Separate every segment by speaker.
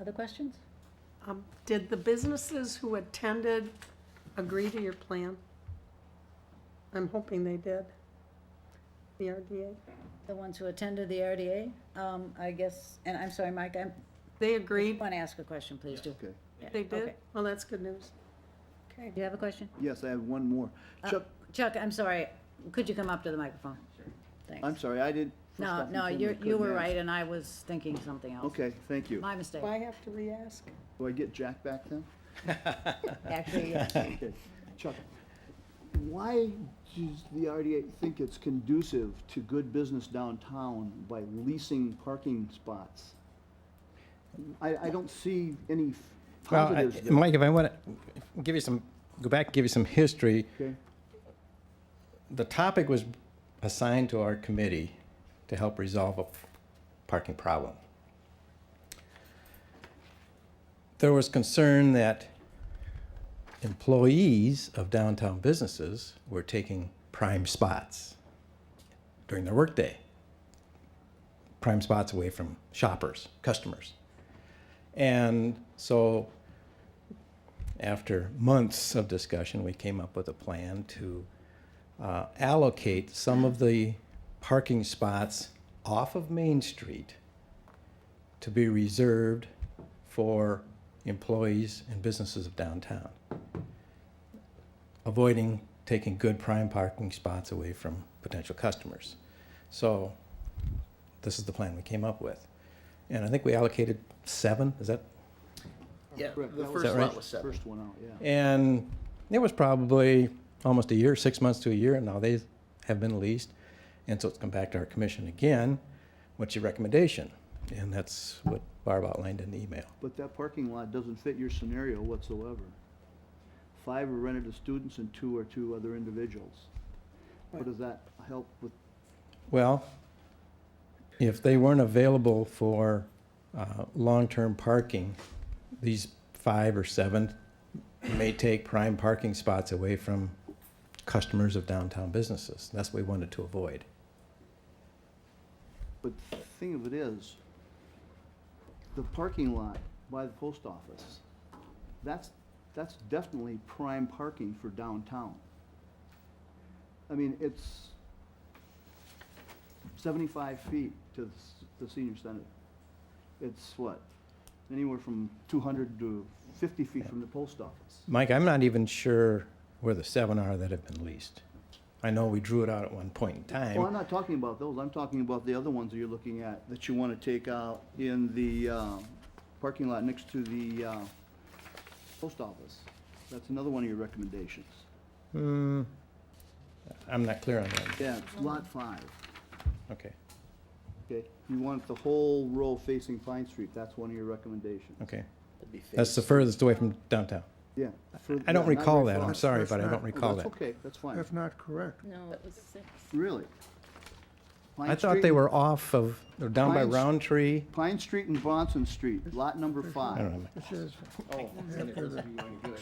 Speaker 1: Other questions?
Speaker 2: Um, Did the businesses who attended agree to your plan? I'm hoping they did. The RDA,
Speaker 1: The ones who attended the RDA, um, I guess, and I'm sorry, Mike, I
Speaker 2: they agreed,
Speaker 1: want to ask a question, please do.
Speaker 3: Okay.
Speaker 1: Yeah,
Speaker 2: they did?
Speaker 1: okay.
Speaker 2: Well, that's good news. Okay.
Speaker 1: Do you have a question?
Speaker 3: Yes, I have one more.
Speaker 1: Uh,
Speaker 3: Chuck,
Speaker 1: Chuck, I'm sorry, could you come up to the microphone? Thanks.
Speaker 3: I'm sorry, I did. first
Speaker 1: No,
Speaker 3: off and
Speaker 1: no,
Speaker 3: foremost,
Speaker 1: you, you
Speaker 3: couldn't
Speaker 1: were
Speaker 3: ask.
Speaker 1: right, and I was thinking something else.
Speaker 3: Okay, thank you.
Speaker 1: My mistake,
Speaker 2: Do I have to re-ask?
Speaker 3: Do I get Jack back then?
Speaker 1: actually, yes.
Speaker 3: Okay. Chuck, why does the RDA think it's conducive to good business downtown by leasing parking spots? I, I don't see any
Speaker 4: Well, I-
Speaker 3: positives there.
Speaker 4: Mike, if I want to give you some, go back, and give you some history.
Speaker 3: Okay,
Speaker 4: The topic was assigned to our committee to help resolve a parking problem. There was concern that employees of downtown businesses were taking prime spots during their workday. Prime spots away from shoppers, customers. And so after months of discussion, we came up with a plan to uh, allocate some of the parking spots off of Main Street to be reserved for employees and businesses of downtown, avoiding taking good prime parking spots away from potential customers. So this is the plan we came up with. And I think we allocated seven, is that
Speaker 5: Yeah,
Speaker 3: correct.
Speaker 5: the
Speaker 3: That
Speaker 5: first
Speaker 4: right?
Speaker 5: lot was seven.
Speaker 3: First one out, yeah.
Speaker 4: And it was probably almost a year, six months to a year, and now they have been leased. And so it's come back to our commission again. What's your recommendation? And that's what Barb outlined in the email.
Speaker 3: But that parking lot doesn't fit your scenario whatsoever. Five are rented to students and two are to other individuals. What does that help with?
Speaker 4: Well, if they weren't available for uh, long-term parking, these five or seven may take prime parking spots away from customers of downtown businesses. That's what we wanted to avoid.
Speaker 3: But the thing of it is, the parking lot by the post office, that's, that's definitely prime parking for downtown. I mean, it's seventy-five feet to the s- the senior center. It's what, anywhere from two hundred to fifty feet from the post office.
Speaker 4: Mike, I'm not even sure where the seven are that have been leased. I know we drew it out at one point in
Speaker 3: Well, Oh, I'm
Speaker 4: time.
Speaker 3: not talking about those, I'm talking about the other ones that you're looking at, that you want to take out in the uh, parking lot next to the uh, post office. That's another one of your recommendations.
Speaker 4: Hmm, I'm not clear on that.
Speaker 3: Yeah, it's lot five,
Speaker 4: Okay,
Speaker 3: okay? You want the whole row facing Pine Street, that's one of your recommendations.
Speaker 4: okay.
Speaker 5: That'd be
Speaker 4: That's the
Speaker 5: phase.
Speaker 4: furthest away from downtown.
Speaker 3: Yeah. for-
Speaker 4: I don't
Speaker 3: yeah, not
Speaker 4: recall
Speaker 3: very
Speaker 4: that,
Speaker 3: far.
Speaker 4: I'm
Speaker 3: Oh,
Speaker 4: sorry,
Speaker 6: that's
Speaker 4: but I
Speaker 6: not-
Speaker 4: don't recall that.
Speaker 3: That's okay, that's fine,
Speaker 6: That's not correct.
Speaker 7: No, it was six.
Speaker 3: really. Pine
Speaker 4: I thought
Speaker 3: Street-
Speaker 4: they were off of, they're down by
Speaker 3: Pine St-
Speaker 4: Roundtree.
Speaker 3: Pine Street and Bronson Street, lot number
Speaker 4: I
Speaker 3: five.
Speaker 4: don't know.
Speaker 6: It says
Speaker 5: Oh,
Speaker 6: after the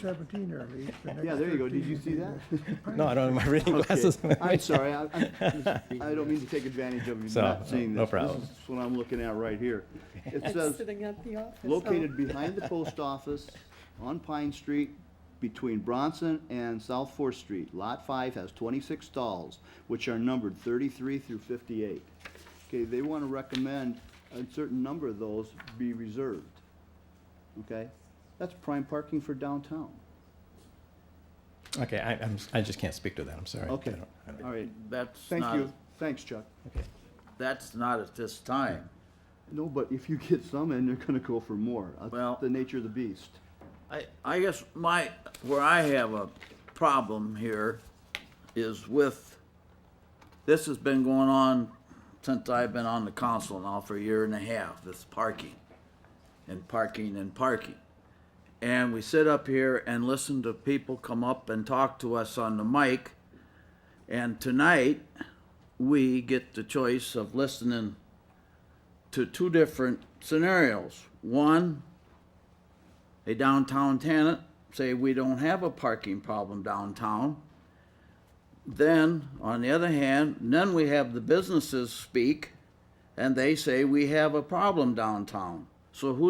Speaker 6: seventeen are leased, the next
Speaker 3: Yeah, there you go, did
Speaker 6: 13
Speaker 3: you
Speaker 6: will
Speaker 3: see
Speaker 6: be
Speaker 3: that?
Speaker 4: No, I don't have my reading
Speaker 3: Okay.
Speaker 4: glasses.
Speaker 3: I'm sorry, I, I'm- I don't mean to take advantage of you
Speaker 4: So,
Speaker 3: not seeing this.
Speaker 4: no problem.
Speaker 3: This is what I'm looking at right here. It
Speaker 2: It's
Speaker 3: says,
Speaker 2: sitting at the office.
Speaker 3: located behind the post office on Pine Street between Bronson and South Fourth Street. Lot five has twenty-six stalls, which are numbered thirty-three through fifty-eight. Okay, they want to recommend a certain number of those be reserved. Okay? That's prime parking for downtown.
Speaker 4: Okay, I, I'm, I just can't speak to that, I'm sorry. I
Speaker 3: Okay,
Speaker 4: don't- I don't-
Speaker 3: all right.
Speaker 5: That's
Speaker 3: Thank
Speaker 5: not,
Speaker 3: you. Thanks, Chuck.
Speaker 5: that's not at this time.
Speaker 3: No, but if you get some in, they're gonna go for more. That's
Speaker 5: Well-
Speaker 3: the nature of the beast.
Speaker 5: I, I guess my, where I have a problem here is with, this has been going on since I've been on the council now for a year and a half, this parking and parking and parking. And we sit up here and listen to people come up and talk to us on the mic. And tonight, we get the choice of listening to two different scenarios. One, a downtown tenant say we don't have a parking problem downtown. Then, on the other hand, then we have the businesses speak and they say we have a problem downtown. So who